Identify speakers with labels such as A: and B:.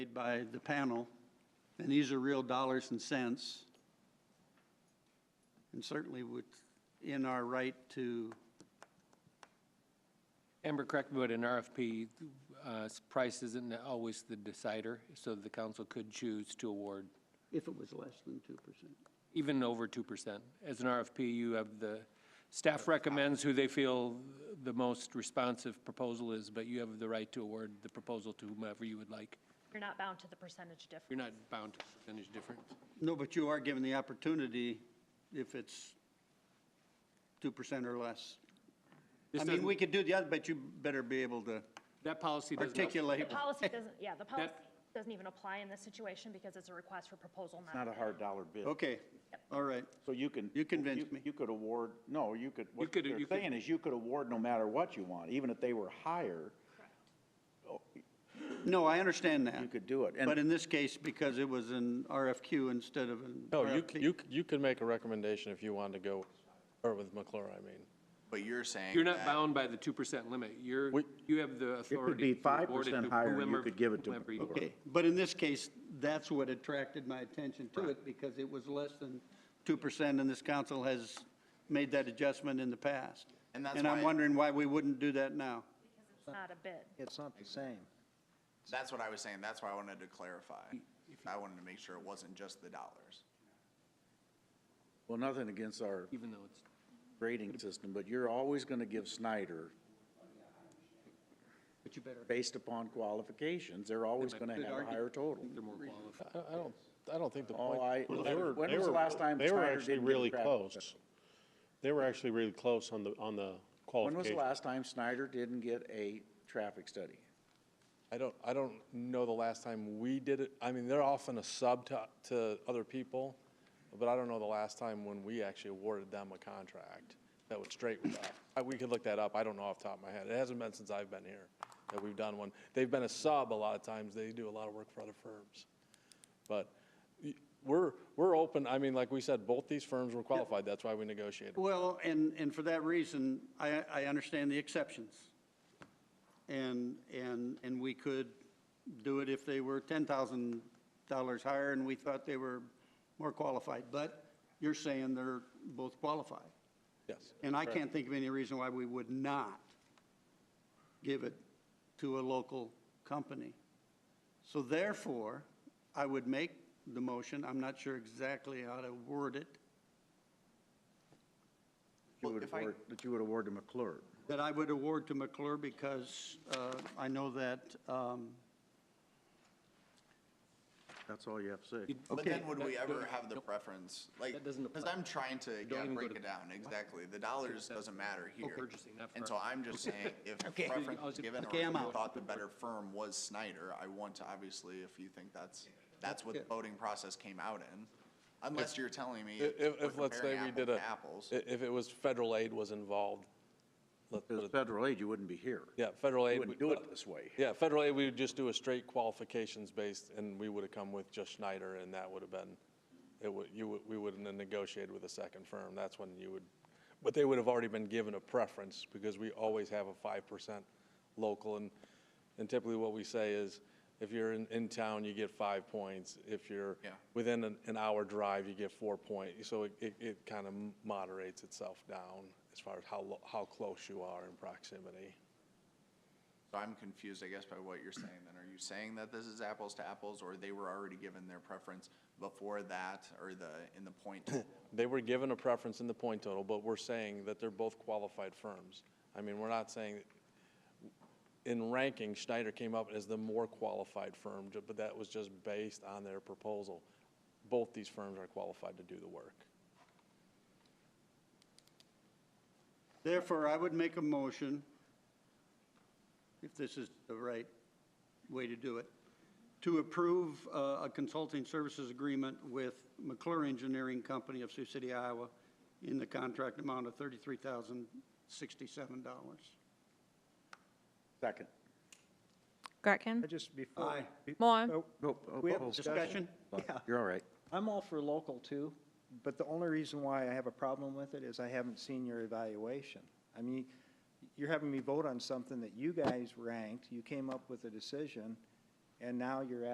A: made by the panel, and these are real dollars and cents. And certainly within our right to,
B: Amber, correct me, but an RFP, uh, price isn't always the decider, so the council could choose to award
A: if it was less than 2%.
B: even over 2%. As an RFP, you have the, staff recommends who they feel the most responsive proposal is, but you have the right to award the proposal to whomever you would like.
C: You're not bound to the percentage difference.
B: You're not bound to percentage difference.
A: No, but you are given the opportunity if it's 2% or less.
B: This
A: I mean,
B: doesn't-
A: we could do the other, but you better be able to
B: That policy does not,
C: The
A: articulate.
C: policy doesn't, yeah, the policy
B: That-
C: doesn't even apply in this situation because it's a request for proposal,
D: It's
C: not,
D: not a hard dollar bid.
A: Okay, all right.
D: So you can.
A: You convinced me.
D: You could award, no, you could, what
B: could-
D: they're
B: you could-
D: saying is you could award no matter what you want, even if they were higher,
A: No, I understand that.
D: you could do it. And-
A: But in this case, because it was an RFQ instead of an
E: No, you,
A: RFP.
E: c- you, c- you could make a recommendation if you wanted to go, or with McClure, I mean.
F: But you're saying.
B: you're not
F: that-
B: bound by the 2% limit. You're,
D: We-
B: you have the
D: It could
B: authority
D: be
B: to
D: five
B: award it
D: percent
B: to
D: higher, and you
B: whomever-
D: could give it to.
B: whomever you-
A: Okay, but in this case, that's what attracted my attention to it, because it was less than 2%, and this council has made that adjustment in the past.
F: And that's
A: I'm
F: why-
A: wondering why we wouldn't do that now.
C: it's not a bid.
G: It's not the same.
F: That's what I was saying, that's why I wanted to clarify. I wanted to make sure it wasn't just the dollars.
D: Well, nothing against our
B: even though it's.
D: grading system, but you're always gonna give Snyder. Based upon qualifications, they're always gonna have a higher total.
E: I, I don't, I don't think the
D: All
E: point.
H: Oh,
D: I-
H: Well,
D: They
H: they were-
D: when
H: they
D: was the
H: were-
D: last time
H: They were
D: Snyder
H: actually
D: didn't get a
H: really
D: crack?
H: close. They were actually really close on the, on the
D: When was the
H: qualification.
D: last time Snyder didn't get a traffic study?
E: I don't, I don't know the last time we did it. I mean, they're often a sub to, to other people, but I don't know the last time when we actually awarded them a contract that was straight with us. I- We could look that up. I don't know off the top of my head. It hasn't been since I've been here that we've done one. They've been a sub a lot of times. They do a lot of work for other firms. But y- we're, we're open. I mean, like we said, both these firms were qualified. That's why we negotiated.
A: Well, and, and for that reason, I, I understand the exceptions. And, and, and we could do it if they were $10,000 higher and we thought they were more qualified. But you're saying they're both qualified.
E: Yes.
A: And I can't think of any reason why we would not give it to a local company. So therefore, I would make the motion, I'm not sure exactly how to word it,
D: You
F: Well,
D: would
F: if I-
D: award- That you would award to McClure.
A: that I would award to McClure because uh, I know that, um,
D: That's all you have to say.
F: But
A: Okay.
F: then would we ever have the preference, like,
B: That doesn't
F: because
B: apply.
F: I'm trying to, yeah,
B: even go
F: break
B: to-
F: it down, exactly. The dollars doesn't matter here.
B: purchasing, not
F: And so I'm just saying, if preference was given, or
A: Okay, I'm
F: if
A: out.
F: you thought the better firm was Snyder, I want to, obviously, if you think that's, that's what the voting process came out in, unless you're telling me
E: If,
F: we're
E: if, let's say
F: comparing
E: we
F: apples
E: did a,
F: to apples.
E: i- if it was federal aid was involved, let's put
D: Because
E: it-
D: federal aid, you wouldn't be here.
E: yeah, federal aid.
D: You wouldn't
E: we- uh,
D: do it this way.
E: Yeah, federal aid, we would just do a straight qualifications based, and we would have come with just Schneider, and that would have been, it would, you, would- we wouldn't have negotiated with a second firm, that's when you would, but they would have already been given a preference, because we always have a five percent local, and, and typically what we say is, if you're in, in town, you get five points, if you're
F: Yeah.
E: within an, an hour drive, you get four point, so it, it, it kind of moderates itself down as far as how, lo- how close you are in proximity.
F: So I'm confused, I guess, by what you're saying then. Are you saying that this is apples to apples, or they were already given their preference before that, or the, in the point? total?
E: They were given a preference in the point total, but we're saying that they're both qualified firms. I mean, we're not saying, in ranking, Schneider came up as the more qualified firm, ju- but that was just based on their proposal. Both these firms are qualified to do the work.
A: therefore, I would make a motion, if this is the right way to do it, to approve uh, a consulting services agreement with McClure Engineering Company of Sioux City, Iowa, in the contract amount of $33,067.
D: Second.
G: I
I: Gretkin,
A: Aye.
G: Just before. be-
I: Moore,
G: oh, We have discussion.
A: Discussion? Yeah.
D: You're all right.
G: I'm all for local too, but the only reason why I have a problem with it is I haven't seen your evaluation. I mean, you're having me vote on something that you guys ranked, you came up with a decision, and now you're